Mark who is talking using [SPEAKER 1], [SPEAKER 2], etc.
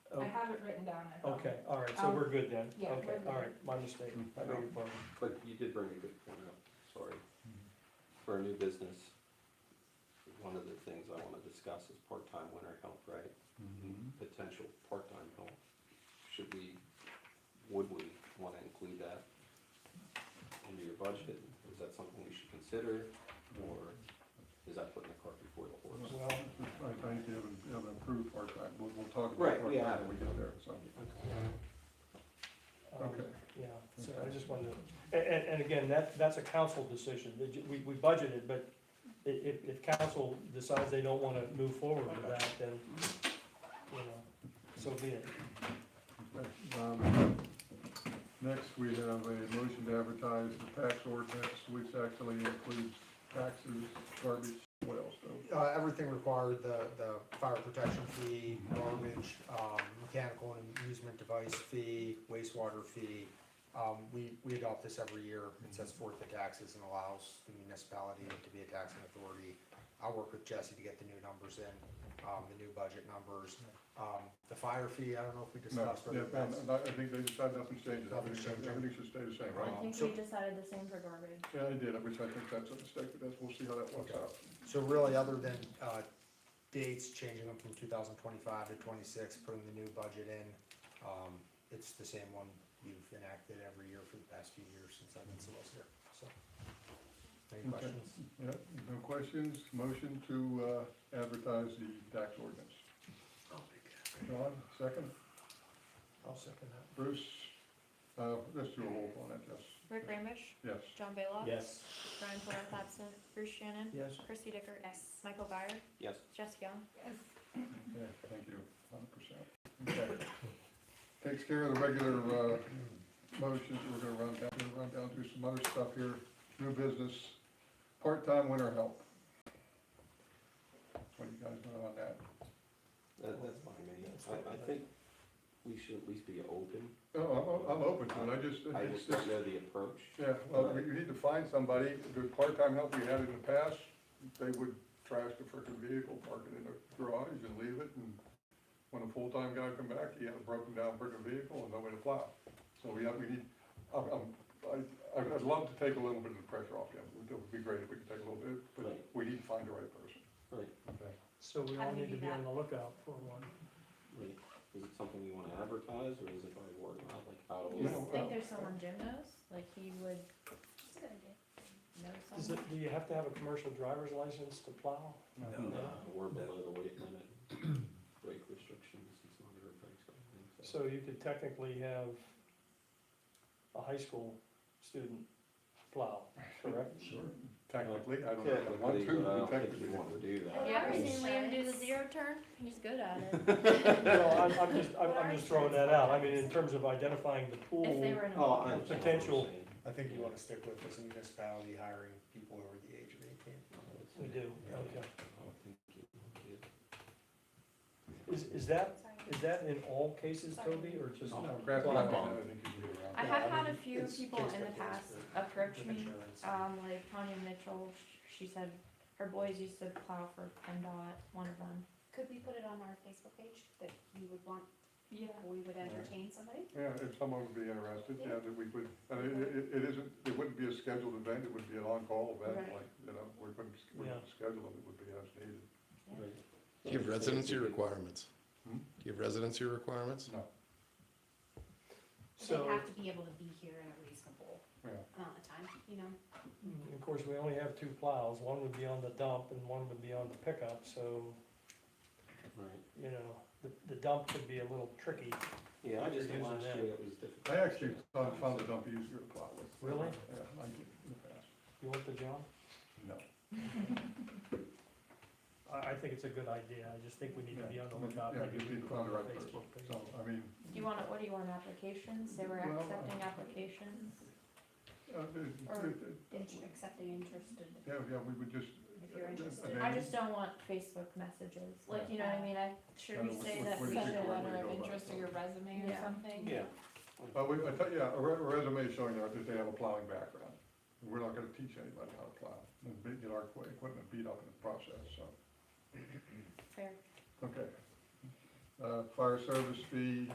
[SPEAKER 1] Oh.
[SPEAKER 2] on it.
[SPEAKER 1] Okay, all right, so
[SPEAKER 2] Um,
[SPEAKER 1] we're good then?
[SPEAKER 2] yeah,
[SPEAKER 1] Okay,
[SPEAKER 2] we're good.
[SPEAKER 1] all right, my mistake, I beg your pardon.
[SPEAKER 3] But you did bring a good point up, sorry. For a new business, one of the things I wanna discuss is part-time winter help, right? Mm-hmm. Potential part-time help. Should we, would we wanna include that into your budget? Is that something we should consider, or is that putting the cart before the horse?
[SPEAKER 4] Well, I think you haven't, you haven't approved part-time, we'll, we'll talk about
[SPEAKER 3] Right, we
[SPEAKER 4] part-time
[SPEAKER 3] haven't.
[SPEAKER 4] when we get there, so.
[SPEAKER 1] Um,
[SPEAKER 4] Okay.
[SPEAKER 1] Yeah, so I just wanted to, and, and, and again, that, that's a council decision, that you- we, we budgeted, but i- if, if council decides they don't wanna move forward with that, then, you know, so be it.
[SPEAKER 4] Okay, um, Next, we have a motion to advertise the tax ordinance, which actually includes taxes, garbage, what else, though?
[SPEAKER 5] uh, everything required, the, the fire protection fee, garbage, um, mechanical and amusement device fee, wastewater fee. Um, we, we adopt this every year. It sets forth the taxes and allows the municipality to be a taxing authority. I'll work with Jesse to get the new numbers in, um, the new budget numbers. Um, the fire fee, I don't know if we
[SPEAKER 4] No,
[SPEAKER 5] discussed.
[SPEAKER 4] yeah, um, no,
[SPEAKER 5] whether that's-
[SPEAKER 4] no, I think they decided nothing's changed, I
[SPEAKER 5] Nothing's
[SPEAKER 4] think that-
[SPEAKER 5] changing.
[SPEAKER 4] everything should stay the same, right?
[SPEAKER 5] Right.
[SPEAKER 6] I think
[SPEAKER 5] So-
[SPEAKER 6] we decided the same for garbage.
[SPEAKER 4] Yeah, I did, which I think that's a mistake, but that's, we'll see how that works out.
[SPEAKER 5] So really, other than, uh, dates, changing them from two thousand twenty-five to twenty-six, putting the new budget in, um, it's the same one you've enacted every year for the past few years since I've been solicitor, so. Any
[SPEAKER 4] Okay.
[SPEAKER 5] questions?
[SPEAKER 4] Yeah, no questions, motion to, uh, advertise the tax ordinance. John, second,
[SPEAKER 1] I'll second that.
[SPEAKER 4] Bruce, uh, let's do a roll call on that, yes,
[SPEAKER 6] Rick Ramish,
[SPEAKER 4] yes.
[SPEAKER 6] John Baylock.
[SPEAKER 1] Yes.
[SPEAKER 6] Brian Flores absent, Bruce Shannon,
[SPEAKER 1] Yes.
[SPEAKER 6] Chrissy Dicker. Michael Byer,
[SPEAKER 3] Yes,
[SPEAKER 6] Jess Young.
[SPEAKER 4] Yeah, thank you, hundred percent. Okay. Takes care of the regular, uh, motions, we're gonna run down, we're gonna run down through some other stuff here, new business, part-time winter help. What do you guys know on that?
[SPEAKER 3] that, that's fine, man. I, I think we should at least be open.
[SPEAKER 4] Oh, I'm, I'm open to it, I just,
[SPEAKER 3] I
[SPEAKER 4] it's,
[SPEAKER 3] just don't
[SPEAKER 4] it's,
[SPEAKER 3] know the approach.
[SPEAKER 4] yeah, well, we, we need to find somebody, the part-time help we had in the past, they would trash the frickin' vehicle, park it in the garage and leave it, and when a full-time guy come back, he had a broken down frickin' vehicle and no way to plow. So we have, we need, I'm, I'm, I, I'd I'd love to take a little bit of the pressure off him, it would be great if we could take a little bit, but
[SPEAKER 3] Right.
[SPEAKER 4] we need to find the right person.
[SPEAKER 3] Right,
[SPEAKER 1] So we all
[SPEAKER 6] How do we
[SPEAKER 1] need to
[SPEAKER 6] do
[SPEAKER 1] be on
[SPEAKER 6] that?
[SPEAKER 1] the lookout for one.
[SPEAKER 3] right. Is it something you wanna advertise, or is it by word of mouth, like how?
[SPEAKER 6] Do you
[SPEAKER 1] uh,
[SPEAKER 4] No,
[SPEAKER 6] think
[SPEAKER 4] no.
[SPEAKER 6] there's someone Jim knows? Like he would know
[SPEAKER 1] Is
[SPEAKER 6] someone?
[SPEAKER 1] it, do you have to have a commercial driver's license to plow?
[SPEAKER 3] No, we're uh, below the weight limit, weight restrictions, it's not a very big thing, so.
[SPEAKER 1] So you could technically have a high school student plow, correct?
[SPEAKER 4] Sure. Technically, I don't know, one,
[SPEAKER 3] Technically,
[SPEAKER 4] two,
[SPEAKER 3] but I don't think
[SPEAKER 4] technically.
[SPEAKER 3] you wanna do
[SPEAKER 6] Have you ever
[SPEAKER 3] that.
[SPEAKER 6] seen Liam do the
[SPEAKER 7] Insurance.
[SPEAKER 6] zero turn? He's good at it.
[SPEAKER 1] Well, I'm, I'm just, I'm, I'm just throwing that out, I mean, in terms of identifying the
[SPEAKER 6] If they
[SPEAKER 1] pool,
[SPEAKER 6] were in a.
[SPEAKER 3] Oh, I understand what you're
[SPEAKER 1] Potential.
[SPEAKER 3] saying.
[SPEAKER 5] I think you wanna stick with this municipality hiring people over the age of eighteen.
[SPEAKER 1] we do, okay.
[SPEAKER 3] I don't think you can do
[SPEAKER 1] Is, is that, is that in all cases, Toby, or just?
[SPEAKER 4] No, Grafton, I don't think you can do
[SPEAKER 6] I
[SPEAKER 4] around.
[SPEAKER 6] have
[SPEAKER 5] Yeah, I
[SPEAKER 6] had a
[SPEAKER 5] mean,
[SPEAKER 6] few
[SPEAKER 5] it's
[SPEAKER 6] people
[SPEAKER 5] case
[SPEAKER 6] in
[SPEAKER 5] by
[SPEAKER 6] the
[SPEAKER 5] case,
[SPEAKER 6] past
[SPEAKER 5] but
[SPEAKER 6] approach
[SPEAKER 5] with
[SPEAKER 6] me,
[SPEAKER 5] insurance.
[SPEAKER 6] um, like Tanya Mitchell, sh- she said her boys used to plow for PennDOT, one of them.
[SPEAKER 7] Could we put it on our Facebook page that you would want,
[SPEAKER 6] Yeah.
[SPEAKER 7] we would entertain somebody?
[SPEAKER 4] Yeah, if someone would be interested, yeah, that we would, I mean, it, it- it isn't, it wouldn't be a scheduled event, it would be an on-call event,
[SPEAKER 6] Right.
[SPEAKER 4] like, you know, we wouldn't, we wouldn't schedule it, it would be as needed.
[SPEAKER 3] that. Right.
[SPEAKER 8] Do you have residency requirements?
[SPEAKER 4] Hmm?
[SPEAKER 8] Do you have residency requirements?
[SPEAKER 4] No,
[SPEAKER 7] They
[SPEAKER 1] So,
[SPEAKER 7] have to be able to be here in a reasonable
[SPEAKER 4] yeah,
[SPEAKER 7] amount of time, you know?
[SPEAKER 1] mm, of course, we only have two plows, one would be on the dump and one would be on the pickup, so,
[SPEAKER 3] Right,
[SPEAKER 1] you know, the, the dump could be a little tricky.
[SPEAKER 3] yeah, I just
[SPEAKER 1] Using
[SPEAKER 3] think last
[SPEAKER 1] that.
[SPEAKER 3] year it was difficult.
[SPEAKER 4] I actually found, found the dump easier to plow with.
[SPEAKER 1] Really?
[SPEAKER 4] Yeah, I did in the past,
[SPEAKER 1] You want the job?
[SPEAKER 4] no.
[SPEAKER 1] I, I think it's a good idea, I just think we need to be on the lookout.
[SPEAKER 4] Yeah,
[SPEAKER 1] like
[SPEAKER 4] you
[SPEAKER 1] we
[SPEAKER 4] need to
[SPEAKER 1] put
[SPEAKER 4] find the
[SPEAKER 1] on
[SPEAKER 4] right person,
[SPEAKER 1] Facebook page.
[SPEAKER 4] so, I mean,
[SPEAKER 6] Do you want, what do you want, applications? They were
[SPEAKER 4] Well, I-
[SPEAKER 6] accepting applications?
[SPEAKER 4] uh, it-
[SPEAKER 6] Or-
[SPEAKER 4] it- it-
[SPEAKER 7] Inter- Accepting interested,
[SPEAKER 4] yeah, yeah, we would just.
[SPEAKER 7] if you're interested.
[SPEAKER 4] And
[SPEAKER 6] I
[SPEAKER 4] then-
[SPEAKER 6] just don't want Facebook messages, like, you know what I mean, I, should
[SPEAKER 4] Kinda
[SPEAKER 6] we
[SPEAKER 4] what-
[SPEAKER 6] say
[SPEAKER 4] what-
[SPEAKER 6] that?
[SPEAKER 4] what did
[SPEAKER 6] we-
[SPEAKER 4] you-
[SPEAKER 9] Send a
[SPEAKER 4] what did you
[SPEAKER 9] letter
[SPEAKER 4] know
[SPEAKER 9] of
[SPEAKER 4] about
[SPEAKER 9] interest or
[SPEAKER 4] it?
[SPEAKER 9] your resume or
[SPEAKER 6] Yeah.
[SPEAKER 9] something?
[SPEAKER 3] Yeah.
[SPEAKER 4] Well, we, I tell, yeah, a re- a resume showing that that they have a plowing background. We're not gonna teach anybody how to plow, and be- get our equi- equipment beat up in the process, so.
[SPEAKER 6] Fair.
[SPEAKER 4] Okay. Uh, fire service fee,